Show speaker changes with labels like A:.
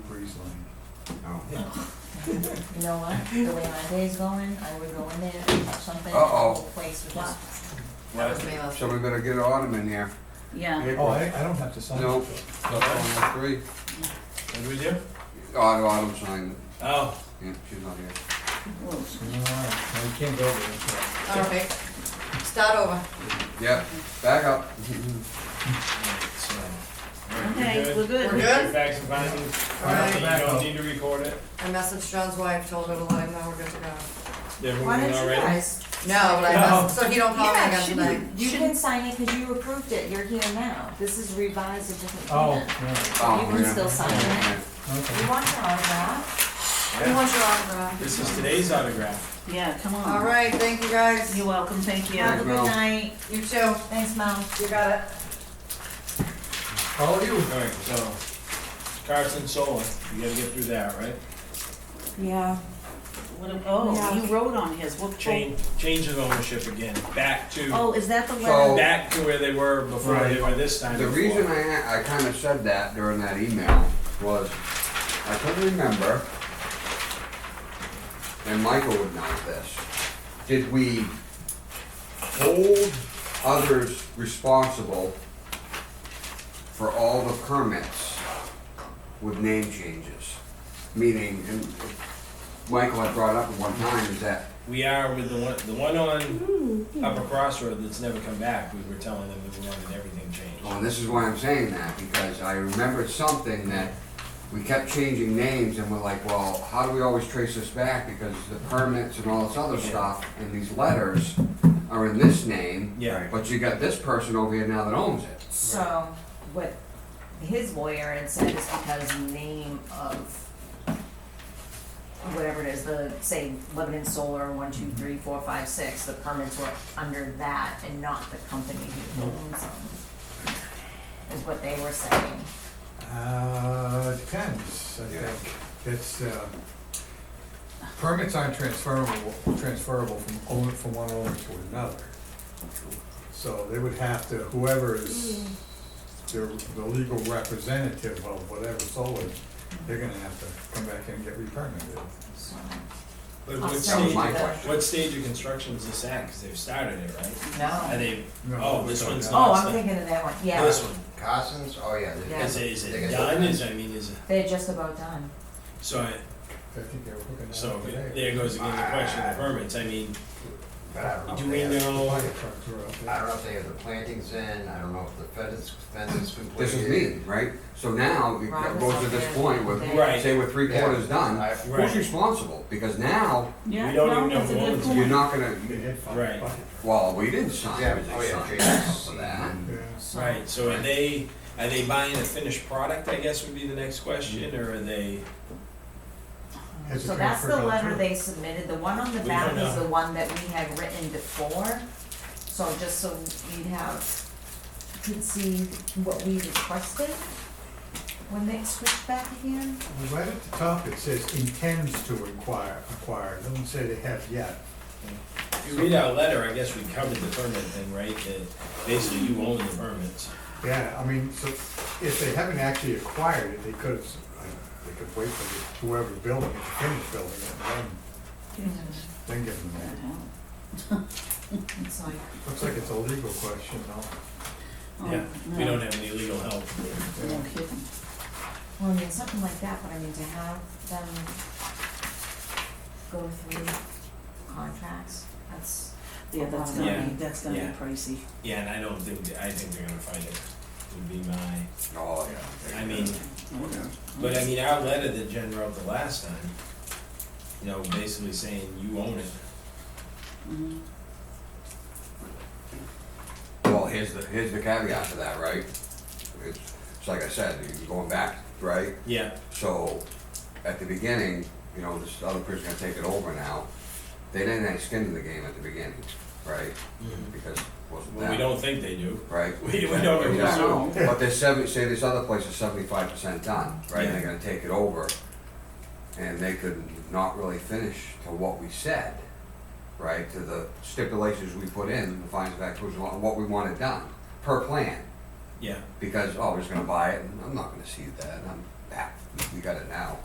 A: Oh.
B: You know what, the way my day's going, I would go in there and touch something, and the
A: Uh-oh.
B: whole place would just.
C: What?
A: So we better get an autumn in here.
D: Yeah,
A: April.
E: Oh, I, I don't have to sign it.
A: Nope. That's one oh three.
C: What do we do?
A: Autumn, autumn sign.
C: Oh,
A: Yeah, she's not here.
D: Well,
E: No, you can't go over there.
F: All right, start over.
A: Yeah, back up.
C: so.
E: uh,
D: okay, we're
F: We're
D: good.
F: good?
C: Facts and findings.
F: All right,
C: You don't need to record it.
F: I messaged John's wife, told her to let him know we're good to go.
C: They're
B: Why
C: moving
B: don't you
C: already.
B: guys?
F: No, but I
C: No.
F: messaged, so he don't call me
B: Yeah,
F: again tonight.
B: shouldn't, you can sign it because you approved it, you're here now, this is revised a different
E: Oh,
B: plan.
E: right,
A: Oh,
B: You can
A: yeah.
B: still sign it. You
E: okay.
B: want your autograph?
F: He
C: Yeah.
F: wants your autograph.
C: This is today's autograph.
D: Yeah, come on.
F: All right, thank you guys.
D: You're welcome, thank you.
B: Have a
A: Mel.
B: good night,
F: You too.
B: thanks, Mel.
F: You got it.
E: How are you?
C: Alright, so Carson Solar, you gotta get through that, right?
B: Yeah.
D: What a- Oh, you wrote on his, what?
C: Change, change of ownership again, back to,
D: Oh, is that the
A: So-
D: letter?
C: back to where they were before they
E: Right.
C: were this time
A: The
C: before.
A: reason I, a- I kinda said that during that email was, I couldn't remember, and Michael would know this, did we hold others responsible for all the permits with name changes? Meaning, and Michael had brought up at one time, is that,
C: We are with the one, the one on Upper Crossroad that's never come back, we were telling them that we wanted everything changed.
A: well, and this is why I'm saying that, because I remembered something that we kept changing names and we're like, well, how do we always trace this back? Because the permits and all this other stuff and these letters are in this name.
C: Yeah.
A: But you got this person over here now that owns it.
B: So, what his lawyer had said is because name of whatever it is, the, say, Lebanon Solar, one, two, three, four, five, six, the permits were under that and not the company who owns them. Is what they were saying.
E: Uh, depends, I think. It's, uh, permits aren't transferable, transferable from owner, from one owner to another. So they would have to, whoever is their, the legal representative of whatever solar, they're gonna have to come back in and get re-permitted.
B: So,
C: But
B: I'll
C: what
B: send
C: stage,
B: you
A: my
B: the-
A: question.
C: what stage of construction is this at, cause they've started it, right? Are
B: No.
C: they,
E: No,
C: oh,
E: we
C: this
E: don't
C: one's
E: know.
C: not,
B: Oh,
C: it's
B: I'm
C: not-
B: thinking of that one, yeah.
C: this one,
A: Cousins? Oh, yeah. they-
B: Yeah.
C: is it, is
A: They
C: it
A: got-
C: done, is, I mean, is it,
B: They're just about done.
C: so I,
E: I think they were looking at it
C: So
E: today.
C: there goes again the question of permits, I mean,
G: But I don't
A: Oh,
G: know.
C: do
G: if
C: we
G: they have-
C: know,
E: Fire trucks were out there.
G: I don't know if they have the plantings in, I don't know if the fence, fence is completed.
A: This is me, right? So now it
B: Right,
A: goes to
B: that's
A: this
B: what
A: point with,
B: they're-
C: Right.
A: say we're three
G: Yeah.
A: quarters done,
G: I-
A: who's
C: Right.
A: responsible? Because now
D: Yeah,
C: We don't
D: no,
C: even know
D: that's a
C: who
D: good
C: owns it.
D: point.
A: you're not gonna,
E: They had fire-
C: Right.
E: fire
A: well, we didn't sign,
G: Yeah,
A: it,
G: oh
A: they
G: yeah,
A: signed
G: Jason's
A: for that.
E: trucks. Yeah.
B: So-
C: right, so are they, are they buying a finished product, I guess would be the next question, or are they,
E: Has it
B: So that's the
E: transferred out
B: letter
E: too?
B: they submitted, the one on the
C: We
B: back
C: don't
B: is
C: know.
B: the one that we had written before, so just so you'd have, could see what we requested when they switched back again.
E: Right at the top, it says intends to inquire, acquire, It doesn't say they have yet.
C: if you read our letter, I guess we covered the permit thing, right? That basically you own the permits.
E: Yeah, I mean, so if they haven't actually acquired it, they could, have they could wait for whoever building it, to finish building it, and then, then give them that.
B: It's like,
E: Looks like it's a legal question, though.
D: Oh,
C: Yeah, we
D: no,
C: don't have any legal help.
D: No kidding.
B: well, I mean, something like that, but I mean, to have them go through contracts, that's,
D: Yeah, that's
C: Yeah.
D: gonna be, that's gonna
C: Yeah.
D: be pricey.
C: Yeah, and I don't think, I think they're gonna find it, would be my,
A: Oh,
C: I mean, but I mean, our letter that Jen wrote the last time, you know, basically saying you own it.
D: Mhm.
A: yeah. Well, here's the, here's the caveat to that, right? It's, it's like I said, you're going back, right?
C: Yeah,
A: So, at the beginning, you know, this other person's gonna take it over now. They didn't have skin in the game at the beginning, right? Because it wasn't
C: well, we
A: them.
C: don't think they do.
A: right?
C: We- we don't really
A: Exactly.
D: know.
A: But there's seven, say this other place is seventy-five percent done, right, and they're gonna take it over, and they could not really finish to what we said, right, to the stipulations we put in, the fines of acquisition, what we wanted done, per plan,
C: Yeah,
A: because, oh, we're just gonna buy it, and I'm not gonna see that, and I'm, ah, we got it now,